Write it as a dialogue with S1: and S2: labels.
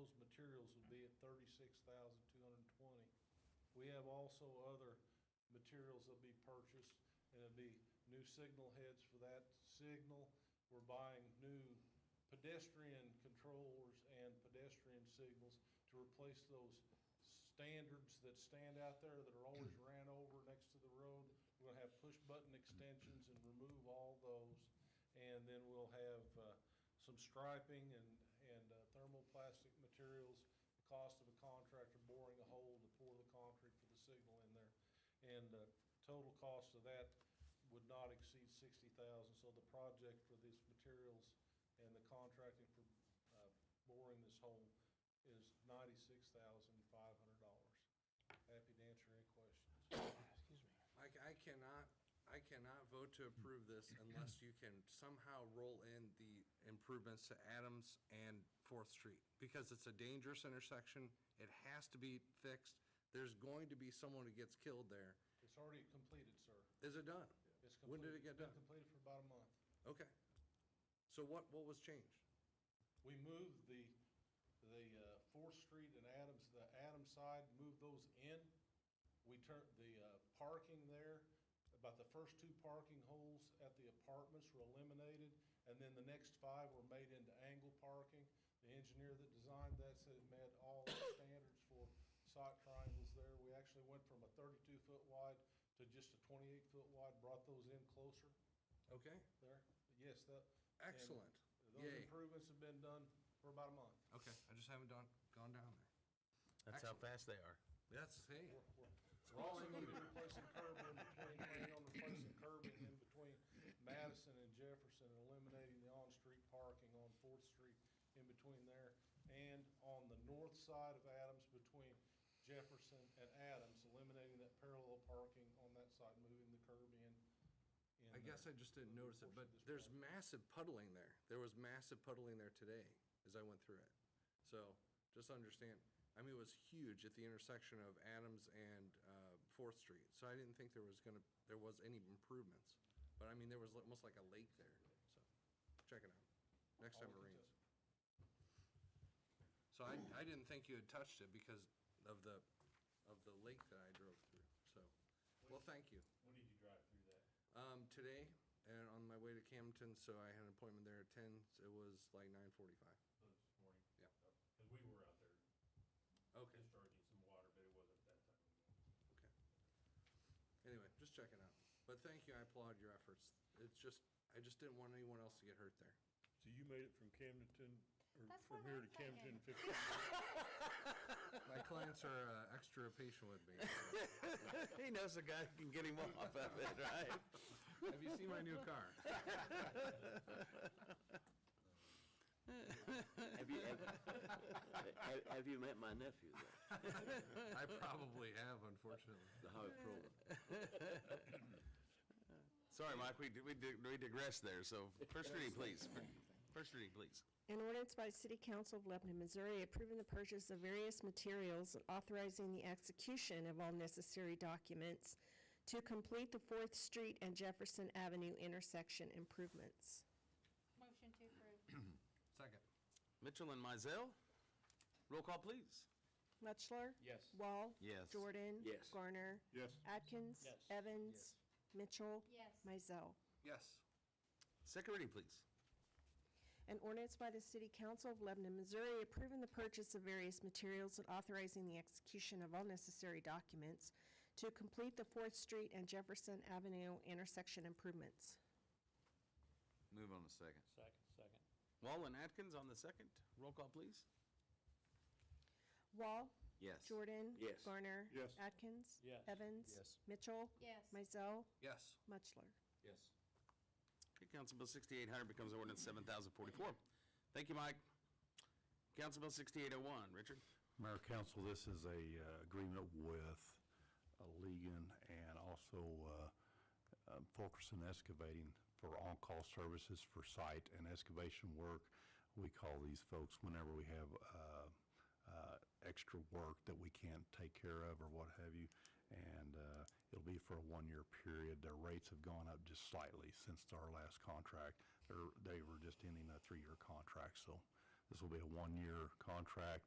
S1: materials would be at thirty-six thousand two hundred and twenty. We have also other materials that'll be purchased, and it'll be new signal heads for that signal. We're buying new pedestrian controllers and pedestrian signals to replace those standards that stand out there that are always ran over next to the road. We're gonna have push-button extensions and remove all those. And then we'll have, uh, some striping and, and uh, thermoplastic materials, the cost of a contractor boring a hole to pour the concrete for the signal in there. And uh, total cost of that would not exceed sixty thousand, so the project for these materials and the contracting for uh, boring this hole is ninety-six thousand five hundred dollars. Happy to answer any questions.
S2: I, I cannot, I cannot vote to approve this unless you can somehow roll in the improvements to Adams and Fourth Street, because it's a dangerous intersection, it has to be fixed, there's going to be someone who gets killed there.
S1: It's already completed, sir.
S2: Is it done?
S1: It's
S2: When
S1: completed.
S2: did it get
S1: Been
S2: done?
S1: Completed for about a month.
S2: Okay. So what, what was changed?
S1: We moved the, the uh, Fourth Street and Adams, the Adams side, moved those in. We turned the uh, parking there, about the first two parking holes at the apartments were eliminated, and then the next five were made into angle parking. The engineer that designed that said it met all the standards for site triangles there. We actually went from a thirty-two foot wide to just a twenty-eight foot wide, brought those in closer
S2: Okay,
S1: there. Yes, that. and
S2: excellent.
S1: Those
S2: Yay.
S1: improvements have been done for about a month.
S2: Okay, I just haven't done, gone down there.
S3: That's how fast they are.
S2: That's, hey,
S1: We're- We're we're also going to be replacing curbing in between, planning on replacing curbing in between Madison and Jefferson and eliminating the on-street parking on Fourth Street in between there. And on the north side of Adams between Jefferson and Adams, eliminating that parallel parking on that side, moving the curb in. in
S2: I guess I
S1: there.
S2: just didn't notice it,
S1: Portion of this
S2: but there's
S1: project.
S2: massive puddling there. There was massive puddling there today as I went through it. So just understand, I mean, it was huge at the intersection of Adams and uh, Fourth Street. So I didn't think there was gonna, there was any improvements. But I mean, there was almost like a lake there, so check it out. Next time it
S1: I'll look into
S2: rains. So I, I didn't think you had touched it because of the, of the lake that I drove through, so. Well, thank you.
S4: When did you drive through that?
S2: Um, today, and on my way to Camden, so I had an appointment there at ten, so it was like nine forty-five.
S4: So Oh, This morning?
S2: Yeah.
S4: Because we were out there
S2: Okay,
S4: discharging some water, but it wasn't that time.
S2: okay. Anyway, just checking out. But thank you, I applaud your efforts. It's just, I just didn't want anyone else to get hurt there.
S5: So you made it from Camdenton, or
S6: That's
S5: from
S6: what
S5: here
S6: I'm
S5: to Camden in
S6: thinking.
S5: 15
S2: My clients are, uh, extra patient with me.
S3: He knows the guy can get him off of it, right?
S2: Have you seen my new car?
S7: Have you, have, have- have you met my nephew, though,
S2: I probably have, unfortunately.
S7: the Howard Proman?
S3: Sorry, Mike, we, di- we di- we digress there, so first reading, please. First reading, please.
S6: An ordinance by the City Council of Lebanon, Missouri approving the purchase of various materials and authorizing the execution of all necessary documents to complete the Fourth Street and Jefferson Avenue intersection improvements.
S8: Motion to approve.
S2: Second.
S3: Mitchell and Mizell, roll call, please.
S6: Mutchler?
S4: Yes.
S6: Wall?
S3: Yes.
S6: Jordan?
S7: Yes.
S6: Garner?
S5: Yes.
S6: Atkins?
S1: Yes.
S6: Evans? Mitchell?
S8: Yes.
S6: Mizell?
S2: Yes.
S3: Second reading, please.
S6: An ordinance by the City Council of Lebanon, Missouri approving the purchase of various materials and authorizing the execution of all necessary documents to complete the Fourth Street and Jefferson Avenue intersection improvements.
S3: Move on to second.
S4: Second, second.
S3: Wall and Atkins on the second, roll call, please.
S6: Wall?
S3: Yes.
S6: Jordan?
S7: Yes.
S6: Garner?
S5: Yes.
S6: Atkins?
S4: Yes.
S6: Evans?
S3: Yes.
S6: Mitchell?
S8: Yes.
S6: Mizell?
S2: Yes.
S6: Muchler?
S3: Yes. Okay, Council Bill 6800 becomes ordinance 7044. Thank you, Mike. Council Bill 6801, Richard?
S9: Mayor Council, this is a uh, agreement with uh, Legan and also uh, um, Fulkerson Excavating for on-call services for site and excavation work. We call these folks whenever we have uh, uh, extra work that we can't take care of or what have you. And uh, it'll be for a one-year period. Their rates have gone up just slightly since our last contract. They're- They were just ending a three-year contract, so this will be a one-year contract